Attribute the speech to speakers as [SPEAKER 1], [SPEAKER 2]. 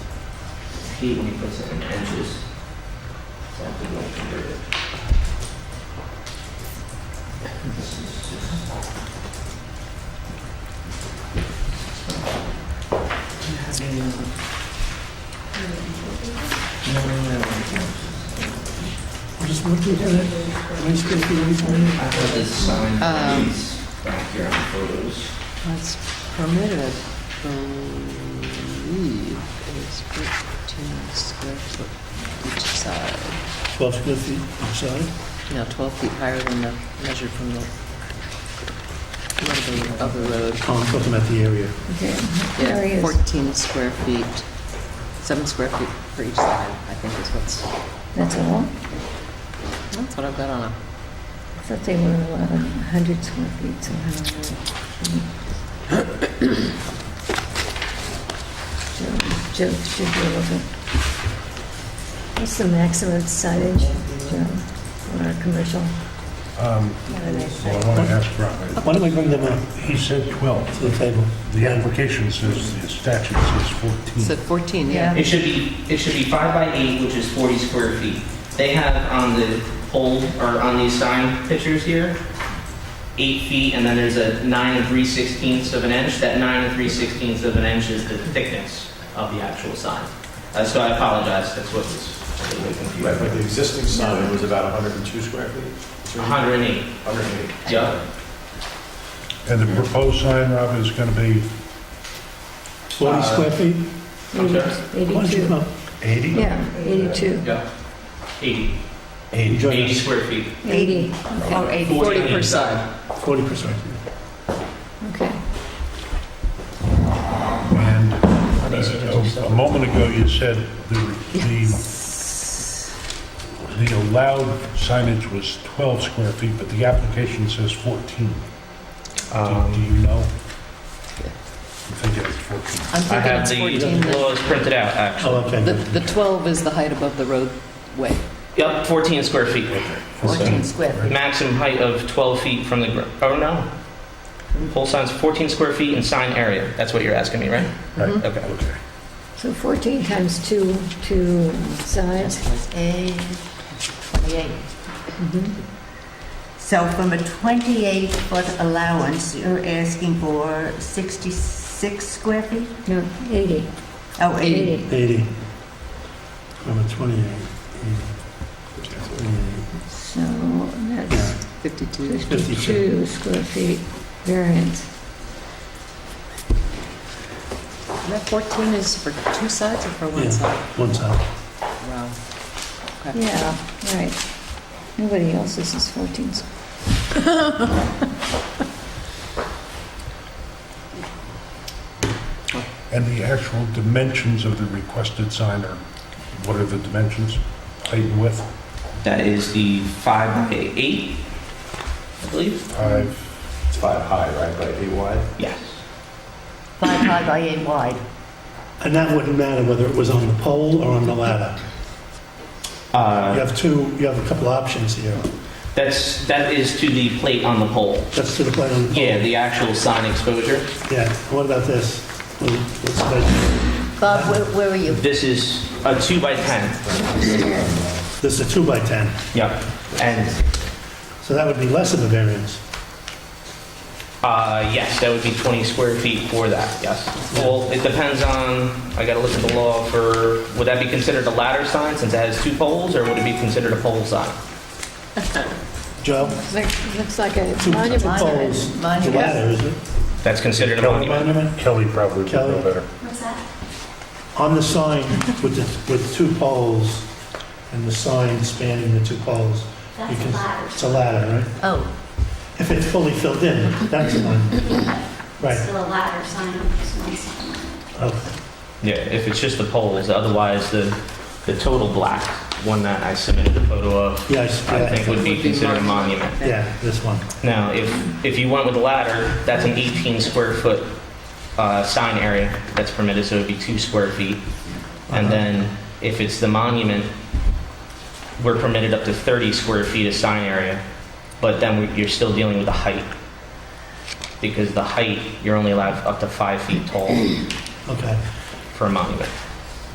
[SPEAKER 1] feet and he puts it in inches. So I have to go convert it. This is just. No, no, no, no, no.
[SPEAKER 2] Just looking at it, am I supposed to wait for it?
[SPEAKER 1] I have this sign
[SPEAKER 3] Um.
[SPEAKER 1] that's back here on the photos.
[SPEAKER 3] That's permitted, Um, believe, is 15 square foot each side.
[SPEAKER 2] 12 square feet inside?
[SPEAKER 3] No, 12 feet higher than the, measured from the, level of the road.
[SPEAKER 2] Oh, I'm talking about the area.
[SPEAKER 4] There he
[SPEAKER 3] Yeah,
[SPEAKER 4] is.
[SPEAKER 3] 14 square feet, seven square feet for each side, I think is what's,
[SPEAKER 4] That's all?
[SPEAKER 3] that's what I've got on it.
[SPEAKER 4] I thought they were allowed 100 square feet somehow. Joe, Joe should be able to. What's the maximum signage, Joe, on our commercial?
[SPEAKER 5] Um,
[SPEAKER 4] Not a nice
[SPEAKER 5] Well,
[SPEAKER 4] site.
[SPEAKER 5] I want to ask Robert.
[SPEAKER 2] Why don't we bring them up
[SPEAKER 5] He said 12.
[SPEAKER 2] to the table?
[SPEAKER 5] The application says, the statute says
[SPEAKER 3] So
[SPEAKER 5] 14.
[SPEAKER 3] 14, yeah.
[SPEAKER 1] It should be, it should be five by eight, which is 40 square feet. They have on the old, or on these sign pictures here, eight feet, and then there's a nine and three sixteenths of an inch. That nine and three sixteenths of an inch is the thickness of the actual sign. Uh, So I apologize, that's what was a little
[SPEAKER 6] Right, but
[SPEAKER 1] confusing.
[SPEAKER 6] the existing sign was about 102 square feet?
[SPEAKER 1] 108,
[SPEAKER 6] 108.
[SPEAKER 1] yeah.
[SPEAKER 5] And the proposed sign, Robert, is going to be
[SPEAKER 2] 40 square feet? Why don't you
[SPEAKER 4] 82.
[SPEAKER 2] come up?
[SPEAKER 5] 80?
[SPEAKER 4] Yeah, 82.
[SPEAKER 1] Yeah. 80,
[SPEAKER 5] 80.
[SPEAKER 2] Join
[SPEAKER 1] 80
[SPEAKER 2] us.
[SPEAKER 1] square feet.
[SPEAKER 4] 80,
[SPEAKER 3] Or
[SPEAKER 1] 40
[SPEAKER 3] 80. 40 per
[SPEAKER 1] each
[SPEAKER 3] side.
[SPEAKER 2] 40 percent.
[SPEAKER 4] okay.
[SPEAKER 5] And uh, a moment ago, you said the the the allowed signage was 12 square feet, but the application says 14. Do do you know? I think it was 14.
[SPEAKER 3] I'm
[SPEAKER 1] I have the,
[SPEAKER 3] thinking it's 14. The-
[SPEAKER 1] well, it's printed out, actually.
[SPEAKER 2] Oh, okay.
[SPEAKER 3] The the 12 is the height above the roadway.
[SPEAKER 1] Yep, 14 square feet.
[SPEAKER 3] 14 square feet.
[SPEAKER 1] Maximum height of 12 feet from the, gr- oh no. Whole sign's 14 square feet in sign area. That's what you're asking me, right?
[SPEAKER 5] Right.
[SPEAKER 1] Okay.
[SPEAKER 5] Okay.
[SPEAKER 4] So 14 times 2, 2 sides.
[SPEAKER 7] and 28. Mm-hmm. So from a 28-foot allowance, you're asking for 66 square feet?
[SPEAKER 4] No, 80.
[SPEAKER 7] Oh, 80.
[SPEAKER 2] 80. From a 28. 28.
[SPEAKER 4] So that's
[SPEAKER 3] 52.
[SPEAKER 4] 52 square feet variance.
[SPEAKER 3] And that 14 is for two sides or for
[SPEAKER 2] Yeah.
[SPEAKER 3] one side?
[SPEAKER 2] One side.
[SPEAKER 3] Wow. Okay.
[SPEAKER 4] Yeah, right. Nobody else's is 14 square.
[SPEAKER 5] And the actual dimensions of the requested sign are, what are the dimensions? Height and width?
[SPEAKER 1] That is the 5 by 8, I believe.
[SPEAKER 5] Five,
[SPEAKER 6] It's five high, right, by eight wide?
[SPEAKER 1] Yes.
[SPEAKER 7] 5 high by 8 wide.
[SPEAKER 2] And that wouldn't matter whether it was on the pole or on the ladder. You
[SPEAKER 1] Uh,
[SPEAKER 2] have two, you have a couple options here.
[SPEAKER 1] That's, that is to the plate on the pole.
[SPEAKER 2] That's to the plate on the pole.
[SPEAKER 1] Yeah, the actual sign exposure.
[SPEAKER 2] Yeah, what about this? Well, let's say-
[SPEAKER 7] Bob, where- where are you?
[SPEAKER 1] This is a 2 by 10.
[SPEAKER 2] This is a two by 10,
[SPEAKER 1] Yep. And,
[SPEAKER 2] so that would be less of a variance.
[SPEAKER 1] uh, yes, that would be 20 square feet for that, yes. Well, it depends on, I gotta look at the law for, would that be considered a ladder sign since it has two poles, or would it be considered a pole sign?
[SPEAKER 2] Joe?
[SPEAKER 4] Looks- Looks like a
[SPEAKER 2] Two
[SPEAKER 4] monument sign.
[SPEAKER 2] poles, the
[SPEAKER 7] Monument.
[SPEAKER 2] ladder, is it?
[SPEAKER 1] That's considered a
[SPEAKER 2] Kelly
[SPEAKER 1] monument.
[SPEAKER 2] monument?
[SPEAKER 5] Kelly probably would know
[SPEAKER 2] Kelly?
[SPEAKER 5] better.
[SPEAKER 2] On the sign with the, with two poles, and the sign spanning the two poles. you can- It's a ladder, right?
[SPEAKER 7] Oh,
[SPEAKER 2] If it's fully filled in, that's fine. Right, Oh,
[SPEAKER 8] Still a ladder sign, it's not something.
[SPEAKER 2] okay.
[SPEAKER 1] Yeah, if it's just the poles, otherwise the, the total black one that I submitted the photo of,
[SPEAKER 2] Yes,
[SPEAKER 1] I think
[SPEAKER 2] yeah,
[SPEAKER 1] would be considered a monument.
[SPEAKER 2] yeah, this one.
[SPEAKER 1] Now, if, if you went with the ladder, that's an 18 square foot uh, sign area that's permitted, so it'd be two square feet. And
[SPEAKER 2] Uh-huh.
[SPEAKER 1] then if it's the monument, we're permitted up to 30 square feet of sign area, but then we- you're still dealing with the height. Because the height, you're only allowed up to five feet tall
[SPEAKER 2] Okay.
[SPEAKER 1] for a monument.